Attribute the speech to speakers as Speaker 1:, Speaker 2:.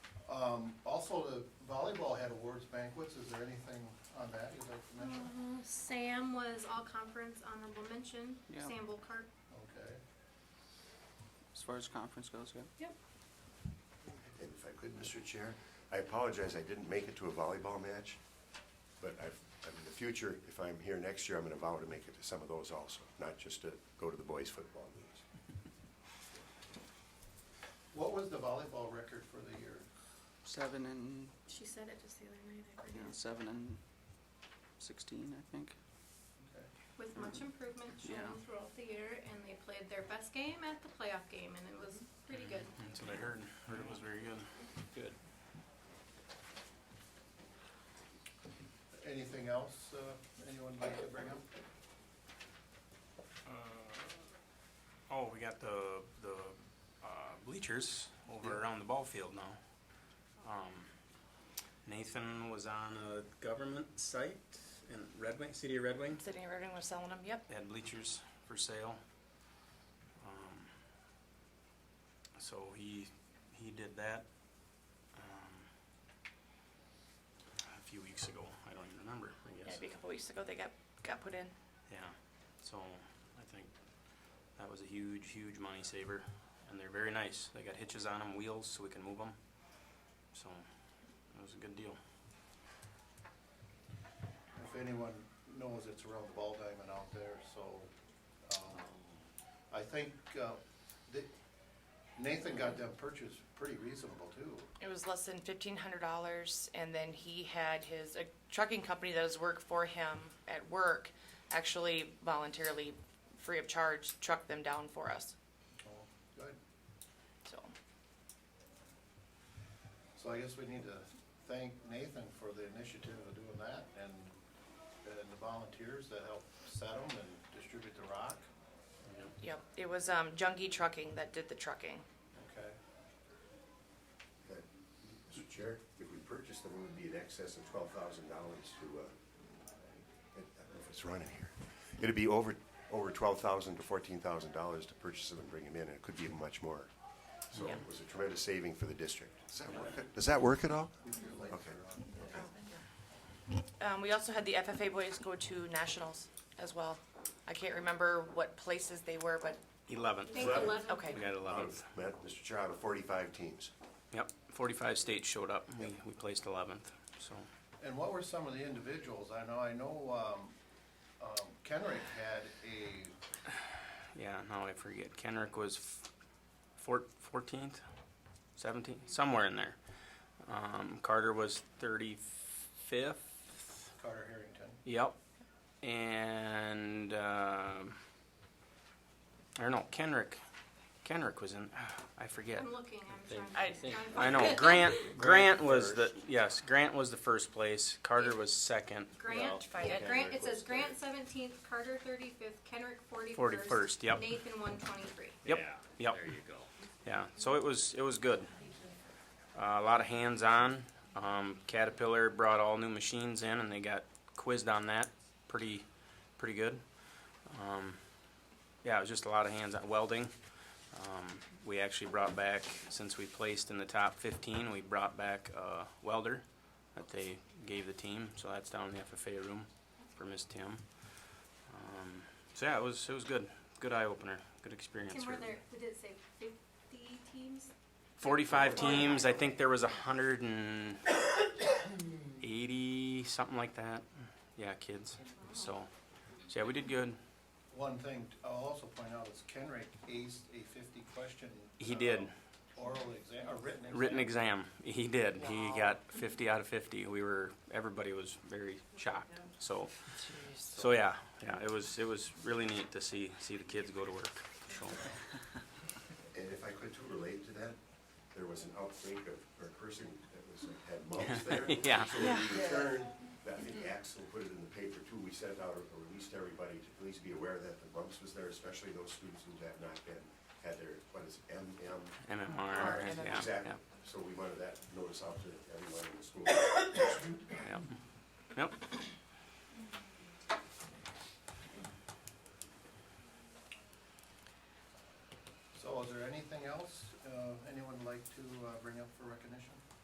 Speaker 1: Um, also, the volleyball had awards banquets, is there anything on that you'd like to mention?
Speaker 2: Uh, Sam was all conference honorable mention,
Speaker 3: Yeah.
Speaker 2: Sam Volkart.
Speaker 1: Okay.
Speaker 3: as far as conference goes, yeah.
Speaker 4: And if I could, Mr. Chair, I apologize, I didn't make it to a volleyball match, but I've, I'm in the future, if I'm here next year, I'm gonna vow to make it to some of those also, not just to go to the boys' football games.
Speaker 1: What was the volleyball record for the year?
Speaker 3: Seven and,
Speaker 2: She said it just the other night, I
Speaker 3: you know,
Speaker 2: forget.
Speaker 3: seven and sixteen, I think.
Speaker 1: Okay.
Speaker 2: With much improvement
Speaker 3: Yeah.
Speaker 2: shown throughout the year, and they played their best game at the playoff game, and it was pretty good.
Speaker 5: That's what I heard. Heard it was very good. Good.
Speaker 1: Anything else, uh, anyone would like to bring up?
Speaker 5: Oh, we got the, the uh, bleachers over around the ball field now. Um, Nathan was on a government site in Red Wing, city of Red Wing.
Speaker 6: Sydney Reardon was selling them, yep.
Speaker 5: They had bleachers for sale. Um, So he, he did that um, a few weeks ago. I don't even remember, I
Speaker 6: Yeah,
Speaker 5: guess.
Speaker 6: maybe a couple weeks ago they got, got put in.
Speaker 5: Yeah, so I think that was a huge, huge money saver, and they're very nice. They got hitches on them, wheels, so we can move them. So it was a good deal.
Speaker 1: If anyone knows, it's around the ball diamond out there, so, um, I think, uh, that Nathan got them purchased pretty reasonable too.
Speaker 6: It was less than fifteen hundred dollars, and then he had his, a trucking company that does work for him at work actually voluntarily, free of charge, trucked them down for us,
Speaker 1: Oh, Good.
Speaker 6: so.
Speaker 1: So I guess we need to thank Nathan for the initiative of doing that and, and the volunteers that helped set them and distribute the rock.
Speaker 6: Yep, it was, um, Junkie Trucking that did the trucking.
Speaker 1: Okay.
Speaker 4: That- Mr. Chair, if we purchased them, it would be in excess of twelve thousand dollars to, uh, I don't know if it's running here. It'd be over, over twelve thousand to fourteen thousand dollars to purchase them and bring them in, and it could be much more. So
Speaker 6: Yeah.
Speaker 4: it was a tremendous saving for the district. Does that work, does that work at all? Okay.
Speaker 6: Um, we also had the FFA boys go to nationals as well. I can't remember what places they were, but,
Speaker 2: I
Speaker 5: 11th.
Speaker 2: think
Speaker 4: Eleven.
Speaker 2: eleven.
Speaker 6: okay.
Speaker 5: We got 11th.
Speaker 4: Matt, Mr. Chair, out of forty-five teams.
Speaker 5: Yep, 45 states showed up. We, we placed 11th, so.
Speaker 1: And what were some of the individuals? I know, I know, um, um, Kenrick had a,
Speaker 5: Yeah, now I forget. Kenrick was f- four- 14th, 17th, somewhere in there. Um, Carter was 35th.
Speaker 1: Carter Harrington,
Speaker 5: Yep. And um I don't know, Kenrick. Kenrick was in. I forget.
Speaker 2: I'm looking, I'm trying.
Speaker 6: I-
Speaker 2: I'm trying to
Speaker 5: I know
Speaker 2: find-
Speaker 5: Grant. Grant was the yes. Grant was the first place. Carter was second.
Speaker 2: Grant,
Speaker 6: Well,
Speaker 2: yeah,
Speaker 6: Kenrick
Speaker 2: Grant, it
Speaker 4: was
Speaker 2: says Grant seventeenth, Carter thirty-fifth, Kenrick forty-first.
Speaker 5: 41st, yep.
Speaker 2: Nathan one twenty-three.
Speaker 5: Yep. yep.
Speaker 7: There you go.
Speaker 5: Yeah. So it was it was good. Uh, a lot of hands on. Um, Caterpillar brought all new machines in, and they got quizzed on that. Pretty pretty good. Um, yeah, it was just a lot of hands on welding. Um, we actually brought back, since we placed in the top 15, we brought back a welder that they gave the team. So that's down in the FFA room for Miss Tim. Um, so yeah, it was it was good, good eye opener, good experience.
Speaker 2: Tim, were
Speaker 5: for-
Speaker 2: there, did it say fifty teams?
Speaker 5: 45 teams. I think there was 180, something like that. Yeah, kids. So, so yeah, we did good.
Speaker 1: one thing I'll also point out is Kenrick aced a fifty question.
Speaker 5: He
Speaker 1: uh,
Speaker 5: did.
Speaker 1: Oral exam, or written exam.
Speaker 5: Written exam. He did. He
Speaker 6: Wow.
Speaker 5: got 50 out of 50. We were everybody was very shocked. So,
Speaker 6: Jeez.
Speaker 5: so yeah, yeah, it was it was really neat to see see the kids go to work. So,
Speaker 4: And if I could too relate to that, there was an outbreak of, or a person that was, like, had mumps there.
Speaker 5: Yeah.
Speaker 4: So when we returned, I think Axel put it in the paper too, we sent out a a release to everybody to please be aware that the mumps was there, especially those students who had not been, had their, what is it, MM?
Speaker 5: MMR.
Speaker 6: MMR.
Speaker 5: yeah,
Speaker 4: Exactly.
Speaker 5: yeah,
Speaker 4: So we wanted that notice out to everyone in the school.
Speaker 5: yeah. Yep.
Speaker 1: uh,